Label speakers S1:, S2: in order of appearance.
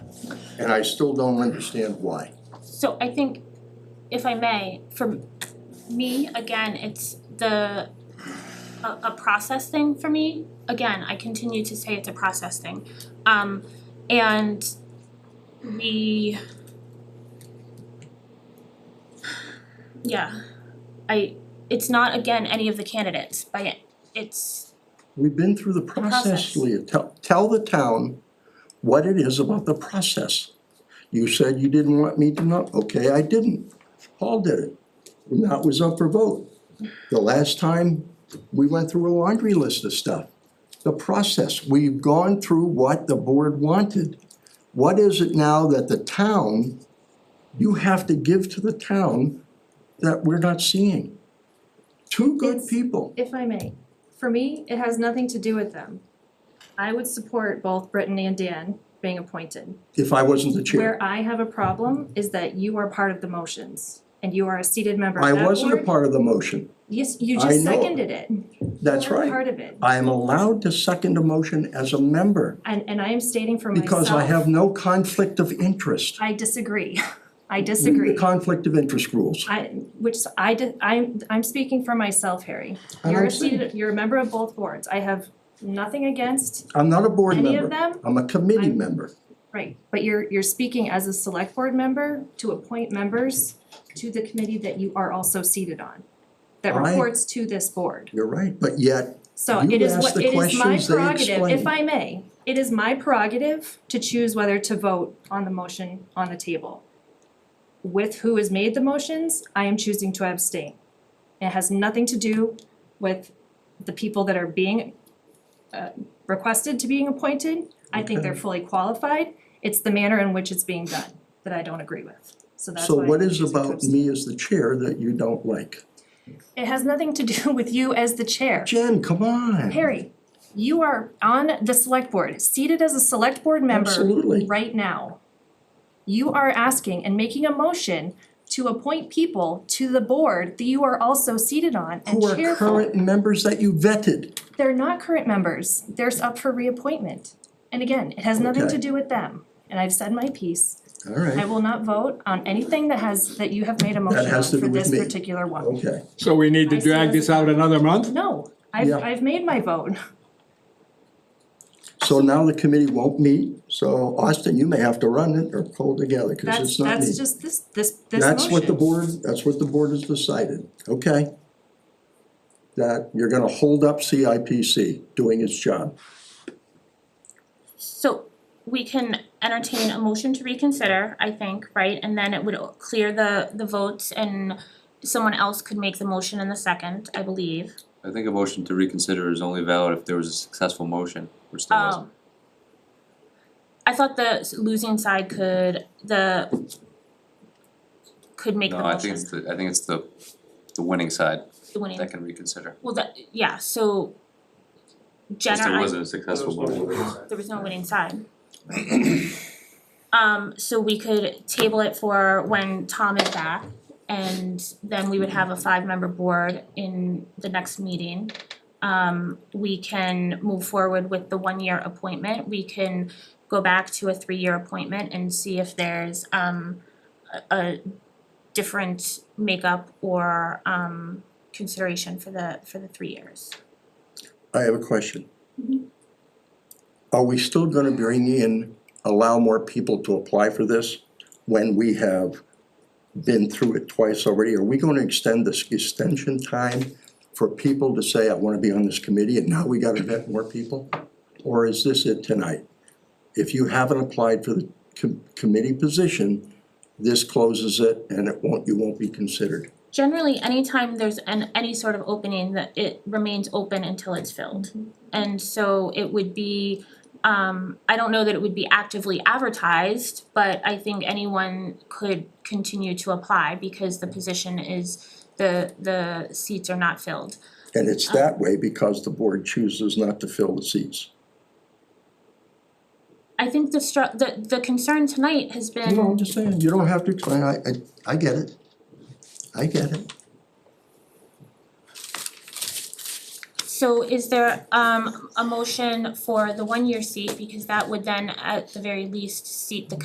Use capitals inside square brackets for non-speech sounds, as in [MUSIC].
S1: and I still don't understand why.
S2: So I think, if I may, for me, again, it's the, a, a process thing for me. Again, I continue to say it's a process thing. Um, and we, yeah, I, it's not, again, any of the candidates, but it's,
S1: We've been through the process,
S2: process.
S1: Leah, tell, tell the town what it is about the process. You said you didn't want me to know, okay, I didn't, Paul did it, and that was up for vote. The last time, we went through a laundry list of stuff. The process, we've gone through what the board wanted. What is it now that the town, you have to give to the town that we're not seeing? Two good
S3: It's-
S1: people.
S3: If I may, for me, it has nothing to do with them. I would support both Brittany and Dan being appointed.
S1: if I wasn't the chair.
S3: Where I have a problem is that you are part of the motions and you are a seated member of
S1: I
S3: that board.
S1: wasn't a part of the motion,
S3: Yes, you
S1: I
S3: just
S1: know.
S3: seconded it.
S1: that's
S3: You're a
S1: right.
S3: part of it.
S1: I am allowed to second a motion as a member
S3: And and I am stating for myself.
S1: because I have no conflict of interest.
S3: I disagree. [LAUGHS] I
S1: Read
S3: disagree.
S1: The conflict of interest rules.
S3: I, which I did, I'm, I'm speaking for myself, Harry.
S1: And
S3: You're
S1: I'm
S3: a seated, you're a member of both boards. I have nothing against,
S1: I'm not a board
S3: Any
S1: member.
S3: of them?
S1: I'm a committee
S3: I'm-
S1: member.
S3: right, but you're, you're speaking as a select board member to appoint members to the committee that you are also seated on, that
S1: I-
S3: reports to this board.
S1: You're right, but yet,
S3: So
S1: You
S3: it is
S1: asked
S3: what,
S1: the
S3: it is my
S1: questions, they
S3: prerogative, if
S1: explained.
S3: I may, it is my prerogative to choose whether to vote on the motion on the table. With who has made the motions, I am choosing to abstain. It has nothing to do with the people that are being uh requested to being appointed. I think they're
S1: Okay.
S3: fully qualified. It's the manner in which it's being done that I don't agree with. So that's
S1: so
S3: why.
S1: what
S3: I'm
S1: is
S3: choosing to
S1: about
S3: abstain.
S1: me as the chair that you don't like?
S3: It has nothing to do [LAUGHS] with you as the chair.
S1: Jen, come on.
S3: Harry, you are on the select board, seated as a select board member
S1: Absolutely.
S3: right now. You are asking and making a motion to appoint people to the board that you are also seated on and
S1: Who
S3: chair
S1: are
S3: for.
S1: current members that you vetted.
S3: They're not current members, they're up for reappointment. And again, it has nothing
S1: Okay.
S3: to do with them, and I've said my piece.
S1: All
S3: I
S1: right,
S3: will not vote on anything that has, that you have made a motion on
S1: has to
S3: for
S1: do with
S3: this
S1: me.
S3: particular one.
S1: okay.
S4: So we need
S3: I
S4: to
S3: see
S4: drag
S3: what you're
S4: this out another month?
S3: No, I've,
S1: Yeah.
S3: I've made my vote.
S1: So now the committee won't meet, so Austin, you may have to run it or pull together, cause
S3: That's,
S1: it's not me.
S3: that's just this, this, this motion.
S1: That's what the board, that's what the board has decided, okay? That you're gonna hold up CIPC doing its job.
S2: so we can entertain a motion to reconsider, I think, right? And then it would clear the, the votes and someone else could make the motion in the second, I believe.
S5: I think a motion to reconsider is only valid if there was a successful motion, which there wasn't.
S2: Oh. I thought the losing side could, the, could make the
S5: No, I think it's
S2: motion,
S5: the, I think it's the, the winning side
S2: the winning.
S5: that can reconsider,
S2: Well, that, yeah, so Jen
S5: since
S2: or
S5: there
S2: I,
S5: wasn't a successful motion.
S2: there was no winning side. Um, so we could table it for when Tom is back and then we would have a five-member board in the next meeting. Um, we can move forward with the one-year appointment, we can go back to a three-year appointment and see if there's um a a different makeup or um consideration for the for the three years.
S1: I have a question. Are we still gonna bring in, allow more people to apply for this when we have been through it twice already? Are we gonna extend this extension time for people to say, I wanna be on this committee and now we gotta vet more people? Or is this it tonight? If you haven't applied for the com- committee position, this closes it and it won't, you won't be considered.
S2: Generally, anytime there's an any sort of opening, that it remains open until it's filled. And so it would be, um I don't know that it would be actively advertised, but I think anyone could continue to apply because the position is the the seats are not filled.
S1: And it's that way because the board chooses not to fill the seats.
S2: I think the stru- the the concern tonight has been
S1: No, I'm just saying, you don't have to explain, I, I, I get it. I get it.
S2: So is there um a motion for the one-year seat, because that would then at the very least seat the